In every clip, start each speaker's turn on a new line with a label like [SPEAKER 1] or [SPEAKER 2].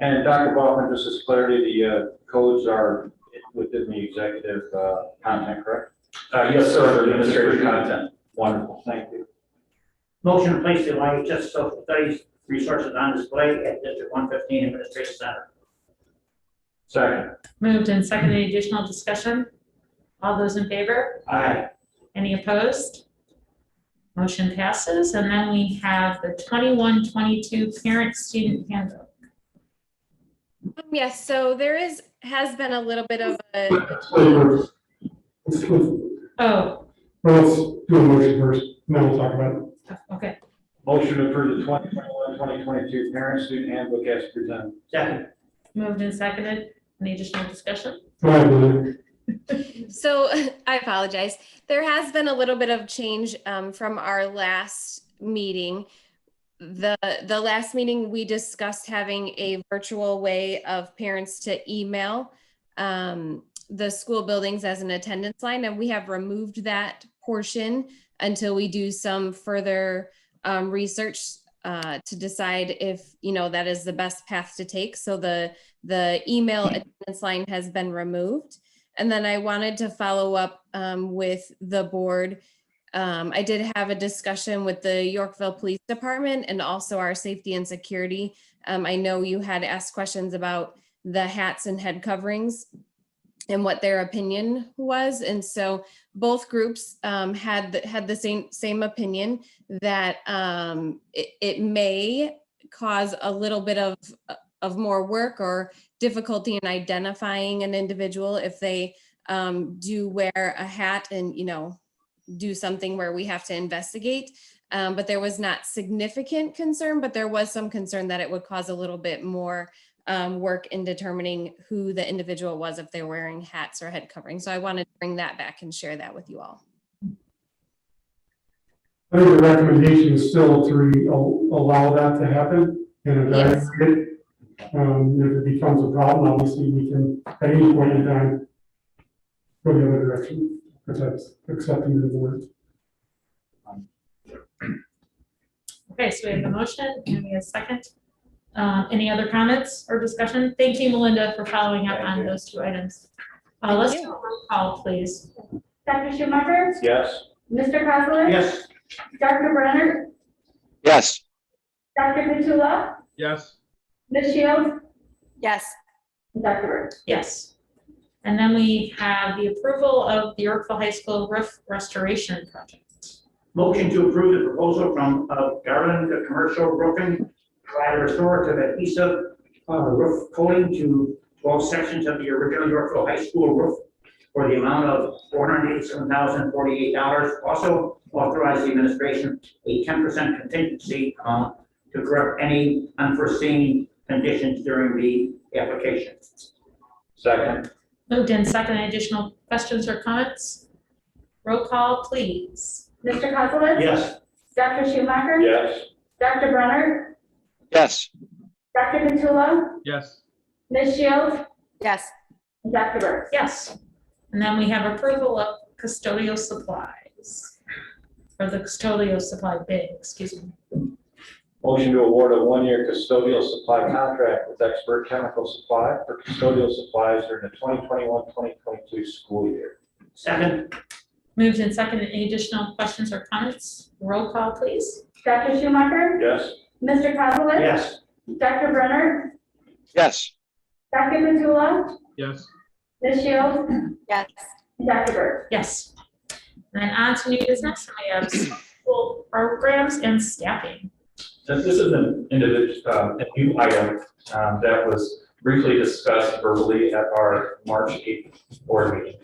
[SPEAKER 1] And Dr. Baughman, just as clarity, the uh, codes are within the executive uh, content, correct?
[SPEAKER 2] Uh, yes, sir, administrative content.
[SPEAKER 1] Wonderful, thank you.
[SPEAKER 3] Motion to place the Lyon Justice Social Studies resources on display at District one fifteen Administration Center.
[SPEAKER 1] Second.
[SPEAKER 4] Moved and seconded, Any additional discussion? All those in favor?
[SPEAKER 3] Aye.
[SPEAKER 4] Any opposed? Motion passes, and then we have the 21-22 parent-student handbook.
[SPEAKER 5] Um, Yes, so there is, has been a little bit of a,
[SPEAKER 6] Wait, first. Let's, let's,
[SPEAKER 4] Oh,
[SPEAKER 6] well, let's do a motion first, and then we'll talk about it.
[SPEAKER 4] okay,
[SPEAKER 1] Motion to approve the 2021, 2022 parent student handbook as presented.
[SPEAKER 3] Second.
[SPEAKER 4] moved and seconded, any additional discussion?
[SPEAKER 6] Go ahead, Lily.
[SPEAKER 5] so I apologize. There has been a little bit of change um, from our last meeting. The, the last meeting, we discussed having a virtual way of parents to email um, the school buildings as an attendance line, and we have removed that portion until we do some further um, research uh, to decide if, you know, that is the best path to take. So the, the email attendance line has been removed. And then I wanted to follow up um, with the board. Um, I did have a discussion with the Yorkville Police Department and also our safety and security. Um, I know you had asked questions about the hats and head coverings and what their opinion was. And so both groups um, had, the- had the same, same opinion that um, it, it may cause a little bit of, of more work or difficulty in identifying an individual if they um, do wear a hat and, you know, do something where we have to investigate. Um, but there was not significant concern, but there was some concern that it would cause a little bit more um, work in determining who the individual was if they're wearing hats or head covering. So I wanted to bring that back and share that with you all.
[SPEAKER 6] I think the recommendation is still to re- al- allow that to happen and evaluate it. Um, if it becomes a problem, obviously, we can, at any point in time, go the other direction, if that's accepting to the board.
[SPEAKER 4] Okay, so we have a motion, and we have a second. Uh, any other comments or discussion? Thank you, Melinda, for following up on those two items. Uh, let's do a roll call, please.
[SPEAKER 7] Dr. Schumacher,
[SPEAKER 1] Yes?
[SPEAKER 7] Mr. Kozler,
[SPEAKER 3] Yes.
[SPEAKER 7] Dr. Brenner,
[SPEAKER 8] yes,
[SPEAKER 7] Dr. Petula,
[SPEAKER 9] yes,
[SPEAKER 7] Ms. Shields,
[SPEAKER 5] Yes.
[SPEAKER 7] and Dr. Burks.
[SPEAKER 4] Yes. And then we have the approval of the Yorkville High School roof restoration project.
[SPEAKER 3] Motion to approve the proposal from uh, Garland Commercial Roofing, provide restorative adhesive uh, roof coating to twelve sections of the original Yorkville High School roof for the amount of four hundred eighty-seven thousand forty-eight dollars. Also authorize the administration a ten percent contingency amount to correct any unforeseen conditions during the application.
[SPEAKER 1] Second.
[SPEAKER 4] Moved in second, additional questions or comments? Roll call, please.
[SPEAKER 7] Mr. Kozler,
[SPEAKER 3] Yes.
[SPEAKER 7] Dr. Schumacher,
[SPEAKER 1] Yes?
[SPEAKER 7] Dr. Brenner,
[SPEAKER 8] yes,
[SPEAKER 7] Dr. Petula,
[SPEAKER 9] yes,
[SPEAKER 7] Ms. Shields,
[SPEAKER 5] Yes.
[SPEAKER 7] and Dr. Burks.
[SPEAKER 4] Yes. And then we have approval of custodial supplies. Or the custodial supply bid, excuse me.
[SPEAKER 1] Motion to award a one-year custodial supply contract with Expert Chemical Supply for custodial supplies during the 2021, 2022 school year.
[SPEAKER 3] Second?
[SPEAKER 4] Moved in second, any additional questions or comments? Roll call, please.
[SPEAKER 7] Dr. Schumacher,
[SPEAKER 1] Yes?
[SPEAKER 7] Mr. Kozler,
[SPEAKER 3] Yes.
[SPEAKER 7] Dr. Brenner,
[SPEAKER 8] yes.
[SPEAKER 7] Dr. Petula,
[SPEAKER 9] yes.
[SPEAKER 7] Ms. Shields. Yes. Dr. Burks.
[SPEAKER 4] Yes. And then on to new business, we have school programs and staffing.
[SPEAKER 2] And this is an individual, a new item um, that was briefly discussed verbally at our March 8th board meeting.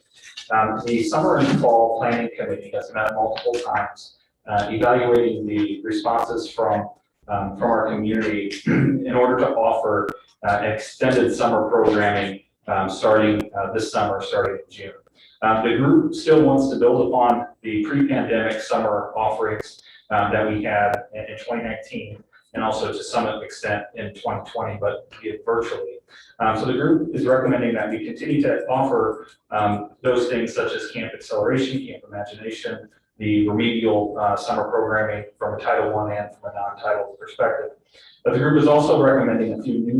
[SPEAKER 2] Um, The summer and fall planning committee has met multiple times, uh, evaluating the responses from, um, from our community in order to offer uh, extended summer programming um, starting uh, this summer, starting in June. Uh, The group still wants to build upon the pre-pandemic summer offerings um, that we had in, in 2019 and also to some extent in 2020, but via virtually. Um, so the group is recommending that we continue to offer um, those things such as Camp Acceleration, Camp Imagination, the remedial uh, summer programming from a Title I and from a non-Title perspective. But the group is also recommending a few new